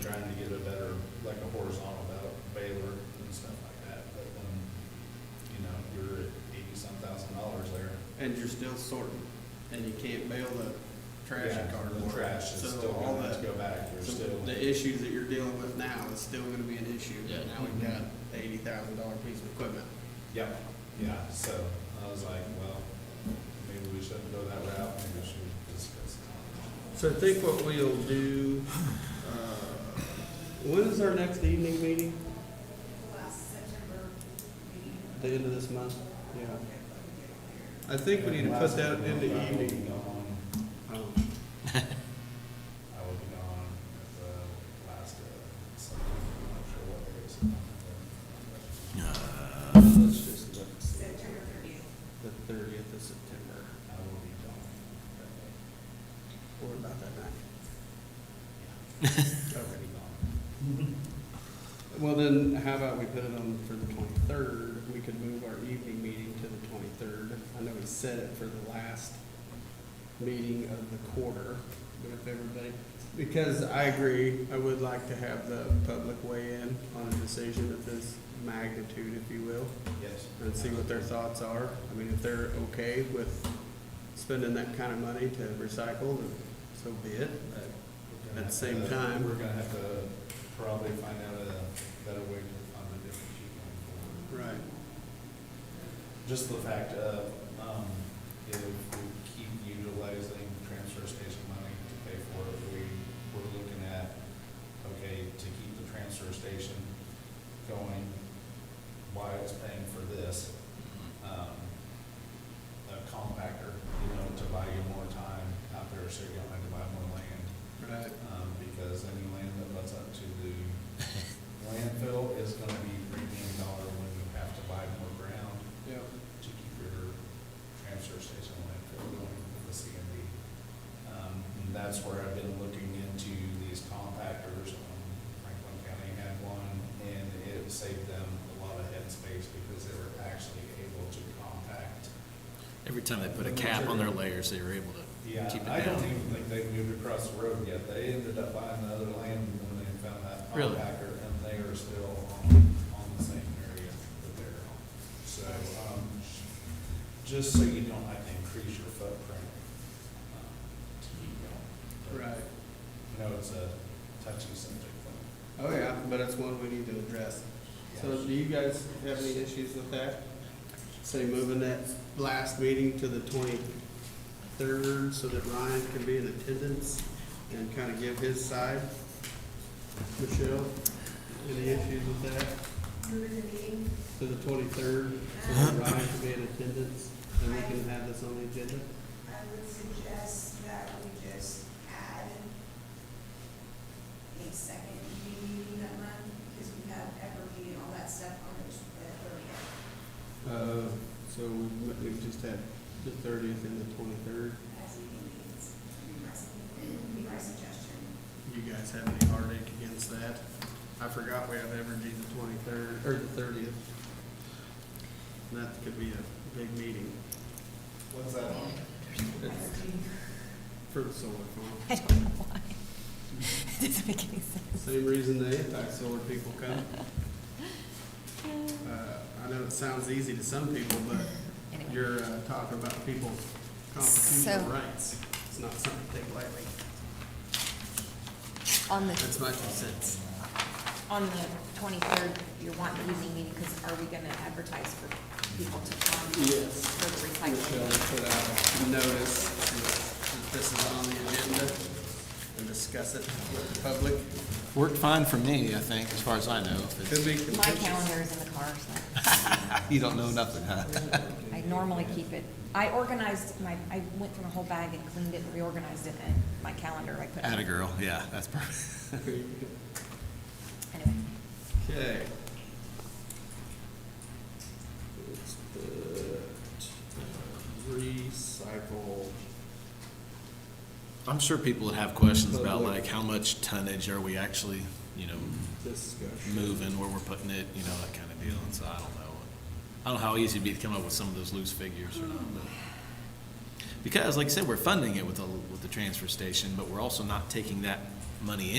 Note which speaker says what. Speaker 1: trying to get a better, like a horizontal ballot baler and stuff like that, but then, you know, you're at eighty-some thousand dollars there.
Speaker 2: And you're still sorting, and you can't bail the trash
Speaker 1: Yeah,
Speaker 2: and cardboard.
Speaker 1: The trash is
Speaker 2: So
Speaker 1: still
Speaker 2: all
Speaker 1: gonna have
Speaker 2: that-
Speaker 1: to go back, you're
Speaker 2: so
Speaker 1: still,
Speaker 2: The issues that you're dealing with now is still gonna be an issue.
Speaker 3: Yeah.
Speaker 2: Now we've got eighty thousand dollar piece of equipment.
Speaker 1: yep, yeah, so I was like, well, maybe we shouldn't go that route, maybe we should just go some
Speaker 2: So I think what we'll do, uh, when is our next evening meeting?
Speaker 4: last September meeting.
Speaker 2: The end of this month? Yeah. I think we need to put that in the
Speaker 1: I will be
Speaker 2: evening.
Speaker 1: gone.
Speaker 2: Um,
Speaker 1: I will be gone at the last, uh, Sunday. I'm not sure what day it's on.
Speaker 2: Let's just look, and see.
Speaker 4: September thirtieth.
Speaker 2: the thirtieth of September,
Speaker 1: I will be gone.
Speaker 2: or about that night.
Speaker 1: Already gone.
Speaker 2: Well, then, how about we put it on for the twenty-third? We could move our evening meeting to the twenty-third. I know we set it for the last meeting of the quarter, but if everybody, because I agree, I would like to have the public weigh in on a decision of this magnitude, if you will,
Speaker 1: Yes.
Speaker 2: and see what their thoughts are. I mean, if they're okay with spending that kind of money to recycle, then so be it, but
Speaker 1: We're gonna
Speaker 2: At the
Speaker 1: have
Speaker 2: same
Speaker 1: to-
Speaker 2: time-
Speaker 1: We're gonna have to probably find out a better way to fund a different sheet going forward.
Speaker 2: Right.
Speaker 1: Just the fact of, um, if we keep utilizing transfer station money to pay for it, we, we're looking at, okay, to keep the transfer station going, why it's paying for this, um, a compactor, you know, to buy you more time out there, so you don't have to buy more land.
Speaker 2: Right.
Speaker 1: um, because any land that butts up to the landfill is gonna be premium dollar when you have to buy more ground
Speaker 2: Yeah.
Speaker 1: to keep your transfer station landfill going with the CMD. Um, and that's where I've been looking into these compactors. Um, Franklin County had one, and it saved them a lot of headspace because they were actually able to compact
Speaker 3: Every time they put a cap on their layers, they were able
Speaker 1: yeah,
Speaker 3: to keep it
Speaker 1: I don't
Speaker 3: down.
Speaker 1: even think they moved across the road yet. They ended up buying the other land when they found that
Speaker 3: Really?
Speaker 1: compactor, and they are still on, on the same area that they're on. So, um, just so you don't have to increase your footprint, um, to keep going.
Speaker 2: Right.
Speaker 1: You know, it's a touchy subject, but
Speaker 2: Oh, yeah, but it's one we need to address. So do you guys have any issues with that? Say moving that last meeting to the twenty-third so that Ryan can be in attendance and kind of give his side? Michelle, any issues with that?
Speaker 4: During the meeting,
Speaker 2: To the twenty-third, so that Ryan can be in attendance and we can have this on the agenda?
Speaker 4: I would suggest that we just add a second evening meeting that month, because we have Everly and all that stuff on the thirtieth.
Speaker 2: Uh, so we- we've just had the thirtieth and the twenty-third.
Speaker 4: As evening meetings, would be my su- would be my suggestion.
Speaker 2: You guys have any heartache against that? I forgot we have Evergy the twenty-third, or the thirtieth. That could be a big meeting
Speaker 1: What's that on?
Speaker 2: for the solar farm.
Speaker 5: I don't know why. It doesn't make any sense.
Speaker 2: Same reason the anti-solar people come. Uh, I know it sounds easy to some people, but
Speaker 5: Anyway.
Speaker 2: you're uh, talking about people's constitutional
Speaker 5: So-
Speaker 2: rights. It's not something to take lightly.
Speaker 5: On
Speaker 2: That's
Speaker 5: the,
Speaker 2: my two cents.
Speaker 5: on the twenty-third, you're wanting the evening meeting, because are we gonna advertise for people to come?
Speaker 2: Yes.
Speaker 5: For the
Speaker 2: Michelle
Speaker 5: recycling?
Speaker 2: put out a notice that this is on the agenda and discuss it with the public.
Speaker 3: Worked fine for me, I think, as far as I know. if
Speaker 2: Could
Speaker 3: it's-
Speaker 2: be
Speaker 5: My
Speaker 2: contentious.
Speaker 5: calendar is in the car, so
Speaker 3: You don't know nothing, huh?
Speaker 5: I normally keep it. I organized my, I went through my whole bag and cleaned it and reorganized it, and my calendar, I put.
Speaker 3: Atta girl, yeah, that's perfect.
Speaker 5: Anyway,
Speaker 2: Okay. It's the recycle.
Speaker 3: I'm sure people would have questions about
Speaker 2: Public.
Speaker 3: like, how much tonnage are we actually, you know,
Speaker 2: discussion.
Speaker 3: moving, where we're putting it, you know, that kind of deal, and so I don't know. I don't know how easy it'd be to come up with some of those loose figures or not, but. Because, like I said, we're funding it with the, with the transfer station, but we're also not taking that money in.